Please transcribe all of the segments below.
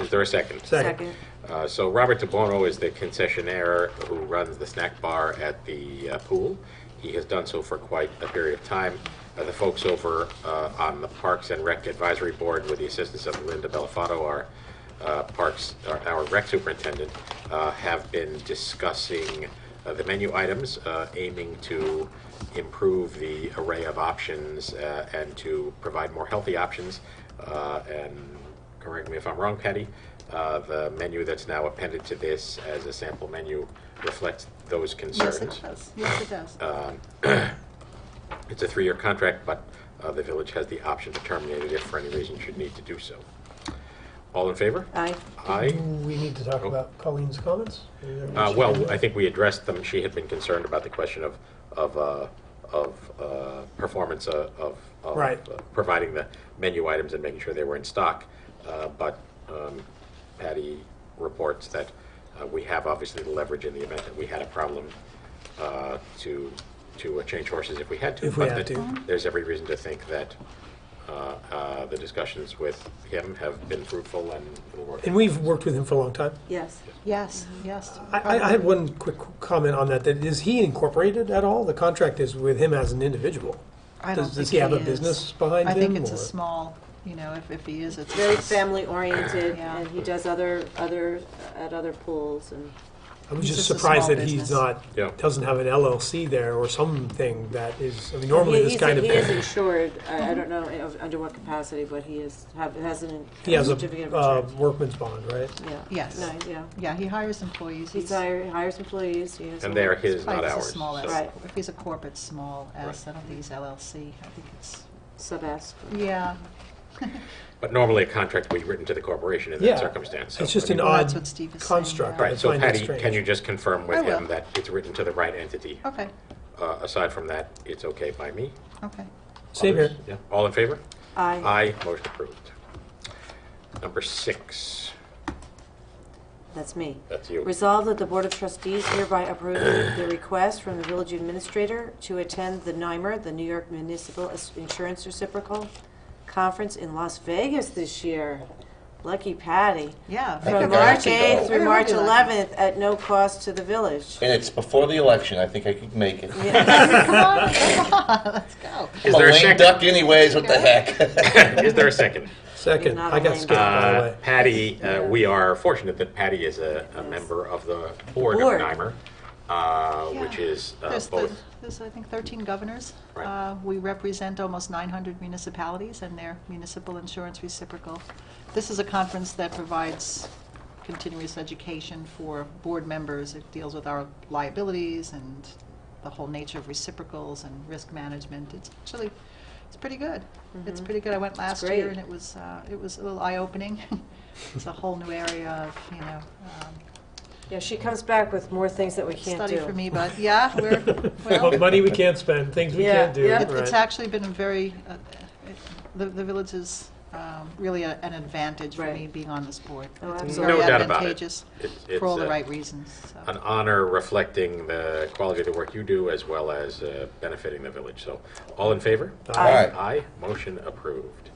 Is there a second? Second. Uh, So Robert DeBono is the concessionaire who runs the snack bar at the uh, pool. He has done so for quite a period of time. Uh, The folks over uh, on the Parks and Rec Advisory Board, with the assistance of Linda Belafato, our uh, Parks, our- our rec superintendent, uh, have been discussing uh, the menu items, uh, aiming to improve the array of options uh, and to provide more healthy options uh, and correct me if I'm wrong, Patty, uh, the menu that's now appended to this as a sample menu reflects those Yes, it concerns. does. Yes, it does. Uh, It's a three-year contract, but uh, the village has the option to terminate it if for any reason should need to do so. All in favor? Aye. Uh, Aye. We need to talk about Colleen's comments. Oh. Uh, Well, I think we addressed them. She had been concerned about the question of, of, uh, of uh, performance uh, of, of Right. uh, providing the menu items and making sure they were in stock. Uh, But um, Patty reports that uh, we have obviously the leverage in the event that we had a problem uh, to, to uh, change horses if we had to. If we But had that to. There's every reason to think that uh, uh, the discussions with him have been fruitful and will work. And we've worked with him for a long time. Yes. Mm-hmm. Yes, yes. I, I I had one quick comment on that, that is he incorporated at all? The contract is with him as an individual. I Does- don't does think he have a is. business behind I think him, it's a or- small, you know, if, if he is, it's. Very family oriented, Yeah. and he does other other at other pools and I was He's just just a surprised small that he's business. not, Yeah. doesn't have an LLC there or something that is, I mean, normally he, this he's- kind he is of, insured. I, I don't know of- under what capacity, but he is have has an he has certificate a uh, of insurance. workman's bond, right? yeah. Yes. No, yeah. Yeah, he hires employees. He He's- hire, hires employees. He has And a- they are his, it's probably not just a ours. small so- S. Right. If he's a corporate, small S, Right. I don't think he's LLC. I think it's, sub-ask. yeah. But normally a contract would be written to the corporation in Yeah. that circumstance. so- It's just I mean, an Well, odd that's what Steve is saying, construct. yeah. I Right, so find that Patty, strange. can you just confirm I with him will. that it's written to the right entity? Okay, Uh, Aside from that, it's okay by me? okay. Same Others? here. Yeah. All in favor? Aye. Aye, motion approved. Number six, That's me. that's you. Resolved that the Board of Trustees hereby approves the request from the village administrator to attend the NYMER, the New York Municipal As- Insurance Reciprocal Conference in Las Vegas this year. Lucky Patty. Yeah. I From think I have March to go. 8th I through would March be lucky. 11th at no cost to the village. And it's before the election. I think I could make it. Come on, come on, let's go. Is I'm there a lame second? duck anyways. What the heck? Is there a second? Second, Not I got only- skipped, by the Uh, way. Patty, uh, we are fortunate that Patty is a, a Yes. member of the board of Board. NYMER, uh, which Yeah. is uh, There's, both the- there's, I think, 13 governors. Right. Uh, We represent almost 900 municipalities and their municipal insurance reciprocal. This is a conference that provides continuous education for board members. It deals with our liabilities and the whole nature of reciprocals and risk management. It's actually, it's pretty good. It's pretty good. I went last Mm-hmm. great. year and it was, uh, it was a little eye-opening. It's a whole new area of, you know, um, Yeah, she comes back with more things that we can't study for do. me, but yeah, we're, well. Money we can't spend, things we Yeah, can't do. yeah. It- It's right. actually been a very, uh, it- the the village is um, really a- an advantage for me Right. being on this board. Oh, It's absolutely. very No doubt about it. advantageous It's- it's, For all the uh, right reasons, so. an honor reflecting the quality of the work you do as well as uh, benefiting the village. So, all in favor? All right. Aye, motion approved.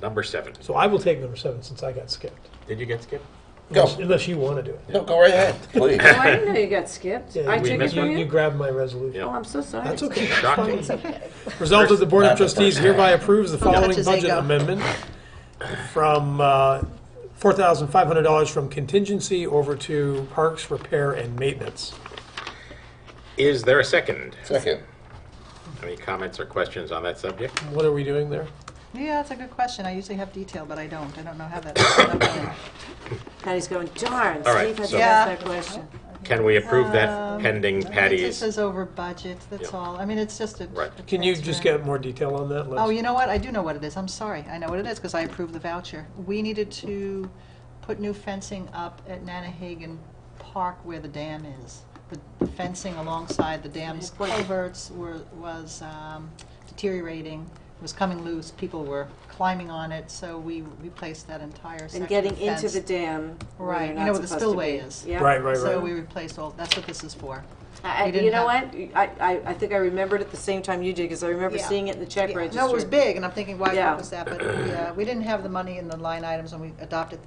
Number seven. So I will take number seven since I got skipped. Did you get skipped? Go. Unless- Unless you want to do it. No, go right ahead, please. Oh, I didn't know you got skipped. Yeah, I you- took it missed You from you you. grabbed my resolution. Yeah. Oh, I'm so sorry. That's okay. Shocking. Resolved that the Board of Not the Trustees first. hereby approves the How much following is budget ego? amendment from uh, $4,500 from contingency over to parks repair and maintenance. Is there a second? Second. Any comments or questions on that subject? What are we doing there? Yeah, that's a good question. I usually have detail, but I don't. I don't know how that. Patty's going, darn, All right, Steve has so- to ask that question. Can we approve that pending Um, This Patty's? is over budget, that's Yeah. all. I mean, it's just a. Right. a Can you just transfer. get more detail on that? Oh, Liz? you know what? I do know what it is. I'm sorry. I know what it is because I approved the voucher. We needed to put new fencing up at Nanahagan Park where the dam is. The- The fencing alongside the dam's Good point. culverts were, was um, deteriorating, was coming loose. People were climbing on it, so we replaced that entire section And of getting into fence. the dam where Right, you're you not know where the supposed to spillway be. is. Yeah. Right, right, So right. we replaced all, that's what this is for. I, I- We you didn't know have- what? I, I, I think I remembered it the same time you did because I remember Yeah. seeing it in the check Yeah. register. No, it was big, and I'm thinking, why Yeah. what was that? But yeah, we didn't have the money in the line items when we adopted the